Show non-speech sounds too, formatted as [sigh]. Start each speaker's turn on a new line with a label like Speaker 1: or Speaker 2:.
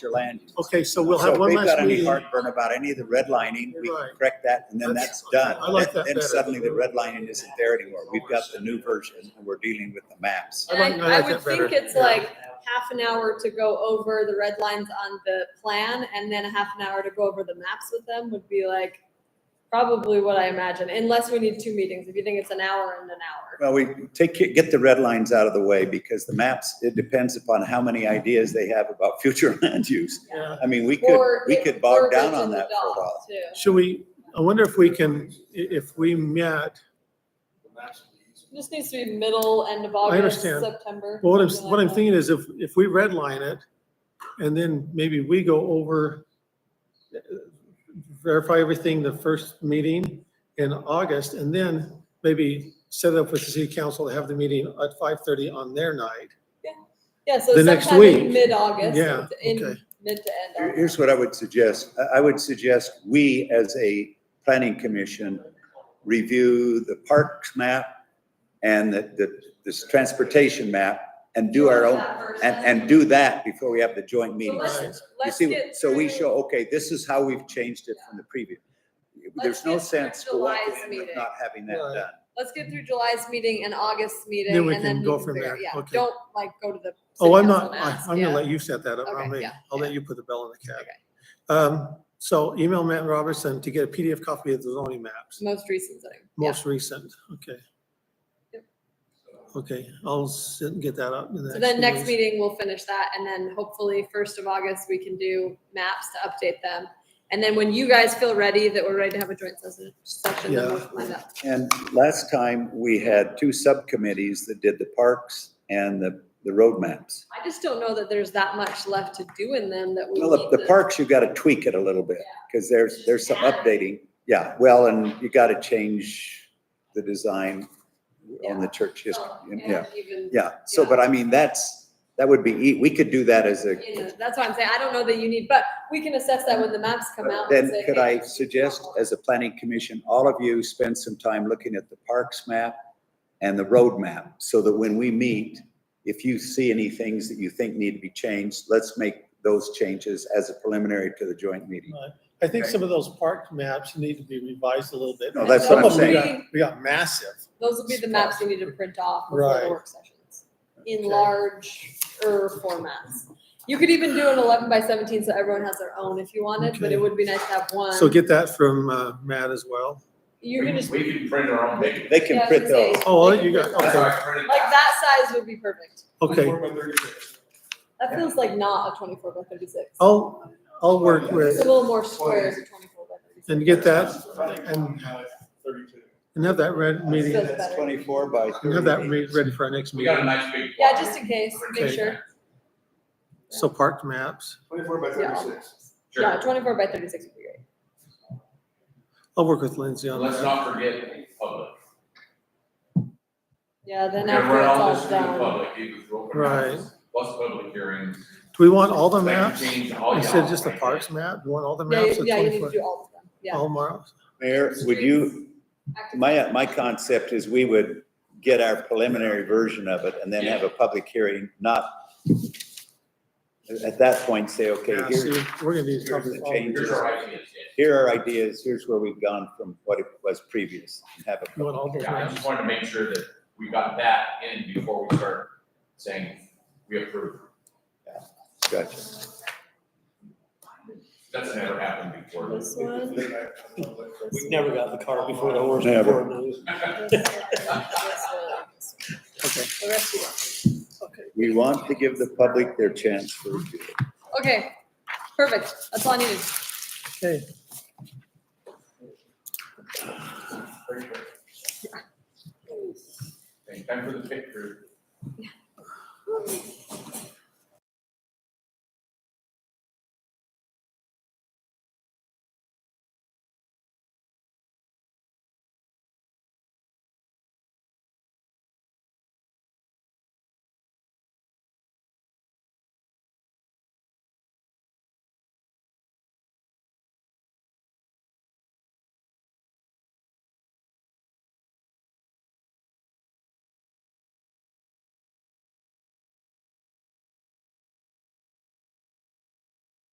Speaker 1: your land use.
Speaker 2: Okay, so we'll
Speaker 1: So
Speaker 2: have
Speaker 1: if
Speaker 2: one
Speaker 1: they've got
Speaker 2: last
Speaker 1: any
Speaker 2: meeting.
Speaker 1: heartburn about any of the redlining, we can
Speaker 2: Right.
Speaker 1: correct that, and then
Speaker 2: That's-
Speaker 1: that's done.
Speaker 2: I like that
Speaker 1: Then
Speaker 2: better.
Speaker 1: suddenly the redlining isn't there anymore. We've got the new version, and we're dealing with the maps.
Speaker 2: I like-
Speaker 3: And
Speaker 2: I
Speaker 3: I, I
Speaker 2: like
Speaker 3: would
Speaker 2: that better.
Speaker 3: think it's like half an hour to go over the red lines on the plan and then a half an hour to go over the maps with them would be like probably what I imagine, unless we need two meetings. If you think it's an hour and an hour.
Speaker 1: Well, we take, get the red lines out of the way, because the maps, it depends upon how many ideas they have about [laughs] future land use.
Speaker 2: Yeah.
Speaker 1: I mean, we could,
Speaker 3: Or
Speaker 1: we
Speaker 3: it-
Speaker 1: could bog
Speaker 3: verbiage
Speaker 1: down on
Speaker 3: in the
Speaker 1: that for a
Speaker 3: doc,
Speaker 1: while.
Speaker 3: too.
Speaker 2: Should we, I wonder if we can, i- if we met,
Speaker 3: It Just needs to be middle, end of August,
Speaker 2: understand.
Speaker 3: September.
Speaker 2: well, what I'm,
Speaker 3: something
Speaker 2: what
Speaker 3: like
Speaker 2: I'm
Speaker 3: that.
Speaker 2: thinking is if, if we redline it, and then maybe we go over, uh, verify everything the first meeting in August, and then maybe set up with the city council to have the meeting at five thirty on their night.
Speaker 3: Yeah, so
Speaker 2: the next
Speaker 3: sometime in
Speaker 2: week.
Speaker 3: mid-August,
Speaker 2: Yeah,
Speaker 3: in
Speaker 2: okay.
Speaker 3: mid to end.
Speaker 1: Here-
Speaker 3: August.
Speaker 1: Here's what I would suggest. I- I would suggest we, as a planning commission, review the parks map and the, the, this transportation map and do our own,
Speaker 3: That first
Speaker 1: and,
Speaker 3: time.
Speaker 1: and do that before we have the joint
Speaker 3: So
Speaker 1: meetings.
Speaker 3: let's-
Speaker 2: You
Speaker 1: You
Speaker 3: let's
Speaker 1: see,
Speaker 3: get
Speaker 1: so we
Speaker 3: through-
Speaker 1: show, okay, this is how we've changed it from the previous. There's
Speaker 3: Let's
Speaker 1: no
Speaker 3: get through
Speaker 1: sense for walking
Speaker 3: July's
Speaker 1: in with
Speaker 3: meeting.
Speaker 1: not having that
Speaker 2: Right.
Speaker 1: done.
Speaker 3: Let's get through July's meeting and August's meeting.
Speaker 2: Then we
Speaker 3: and
Speaker 2: can
Speaker 3: you
Speaker 2: go from
Speaker 3: figure-
Speaker 2: there.
Speaker 3: Yeah,
Speaker 2: Okay.
Speaker 3: don't like go to the.
Speaker 2: Oh,
Speaker 3: city
Speaker 2: I'm
Speaker 3: council
Speaker 2: not,
Speaker 3: and
Speaker 2: I-
Speaker 3: ask,
Speaker 2: I'm gonna
Speaker 3: yeah.
Speaker 2: let you set that up, not
Speaker 3: Okay,
Speaker 2: me.
Speaker 3: yeah,
Speaker 2: I'll let
Speaker 3: yeah.
Speaker 2: you put the bell in the
Speaker 3: Okay.
Speaker 2: cap. Um, so email Matt Robertson to get a PDF copy of the zoning maps,
Speaker 3: Most recent thing. Yeah.
Speaker 2: most recent, okay.
Speaker 3: Yep.
Speaker 2: Okay, I'll sit and get that up. in the
Speaker 3: So then
Speaker 2: few
Speaker 3: next
Speaker 2: days.
Speaker 3: meeting, we'll finish that and then hopefully first of August, we can do maps to update them. And then when you guys feel ready that we're ready to have a joint session, session, then we'll
Speaker 2: Yeah.
Speaker 3: find out.
Speaker 1: And last time, we had two subcommittees that did the parks and the, the road maps.
Speaker 3: I just don't know that there's that much left to do in them that we
Speaker 1: Well, the-
Speaker 3: need
Speaker 1: the
Speaker 3: to-
Speaker 1: parks, you gotta tweak it a little bit, because there's, there's some updating. Yeah, well, and you gotta change the design on the church history,
Speaker 3: Oh,
Speaker 1: yeah,
Speaker 3: even-
Speaker 1: yeah. So, but I mean, that's, that would be, ea- we could do that as a,
Speaker 3: you know, That's why I'm saying, I don't know that you need, but we can assess that when the maps come out. and
Speaker 1: then
Speaker 3: say,
Speaker 1: could I
Speaker 3: hey,
Speaker 1: suggest, as a planning commission, all of you spend some time looking at the parks map and the road map, so that when we meet, if you see any things that you think need to be changed, let's make those changes as a preliminary to the joint meeting.
Speaker 2: I think some of those park maps need to be revised a little bit.
Speaker 1: No, that's
Speaker 2: Some
Speaker 1: what I'm
Speaker 2: of them we
Speaker 3: saying.
Speaker 2: got- We got massive.
Speaker 3: Those will be the maps you need to print off before the
Speaker 2: Right.
Speaker 3: work sessions, in
Speaker 2: Okay.
Speaker 3: larger formats. You could even do an eleven by seventeen, so everyone has their own if you wanted, but
Speaker 2: Okay.
Speaker 3: it would be nice to have one.
Speaker 2: So get that from uh, Matt as well.
Speaker 3: You're gonna just.
Speaker 4: We can print our own. They
Speaker 1: They
Speaker 3: yeah,
Speaker 1: can
Speaker 3: I was
Speaker 1: print
Speaker 3: gonna say,
Speaker 1: those.
Speaker 2: Oh,
Speaker 3: they can
Speaker 2: you got-
Speaker 3: print
Speaker 2: okay.
Speaker 3: those. Like that size would be perfect.
Speaker 2: Okay,
Speaker 3: That feels like not a twenty-four by thirty-six.
Speaker 2: I'll, I'll work
Speaker 3: It's a
Speaker 2: with,
Speaker 3: little more square as a twenty-four by thirty-six.
Speaker 2: and get that, and,
Speaker 4: Thirty-two.
Speaker 2: and have that read, meeting,
Speaker 3: Good.
Speaker 2: and
Speaker 1: That's twenty-four by
Speaker 2: have that
Speaker 1: thirty.
Speaker 2: re- ready for our next
Speaker 4: We got a
Speaker 2: meeting.
Speaker 4: nice big.
Speaker 3: Yeah, just in case, make
Speaker 2: Okay.
Speaker 3: sure.
Speaker 2: So park maps.
Speaker 4: Twenty-four by
Speaker 3: Yeah.
Speaker 4: Sure.
Speaker 3: Yeah, twenty-four by thirty-six would be great.
Speaker 2: I'll work with Lindsay on
Speaker 4: Let's
Speaker 2: that.
Speaker 4: not forget public.
Speaker 3: Yeah, then
Speaker 4: We're gonna
Speaker 3: after
Speaker 4: run
Speaker 3: it's
Speaker 4: all
Speaker 3: all
Speaker 4: this through the
Speaker 3: done.
Speaker 4: public, even through open
Speaker 2: Right.
Speaker 4: houses, plus public hearings.
Speaker 2: Do we want all the
Speaker 4: They can
Speaker 2: maps?
Speaker 4: change all
Speaker 2: Instead of
Speaker 4: y'all.
Speaker 2: just the parks map, you want all the
Speaker 3: Yeah,
Speaker 2: maps?
Speaker 3: you-
Speaker 2: of
Speaker 3: yeah, you need to
Speaker 2: 24
Speaker 3: do all of them, yeah.
Speaker 2: All maps?
Speaker 1: Mayor, would you,
Speaker 3: Active-
Speaker 1: my, uh, my concept is we would get our preliminary version of it and then have a public hearing, not at that point say, okay,
Speaker 2: Yeah,
Speaker 1: here's,
Speaker 2: see, we're gonna need
Speaker 1: here's
Speaker 2: probably
Speaker 1: the
Speaker 2: all
Speaker 1: change.
Speaker 4: Here's our ideas,
Speaker 1: here are ideas, here's where we've gone from what it was previous. and Have
Speaker 2: You want
Speaker 1: a,
Speaker 2: all those
Speaker 4: yeah. Yeah, I
Speaker 2: maps?
Speaker 4: just wanted to make sure that we got that in before we start saying we approve.
Speaker 1: gotcha.
Speaker 4: That's never happened before.
Speaker 3: This one.
Speaker 5: We've never got the cart before the horse.
Speaker 1: Never.
Speaker 3: The
Speaker 2: Okay.
Speaker 3: rest you want.
Speaker 1: We want to give the public their chance for review.
Speaker 3: Okay, perfect. That's all I needed.
Speaker 2: Okay,
Speaker 4: Thank you for the picture.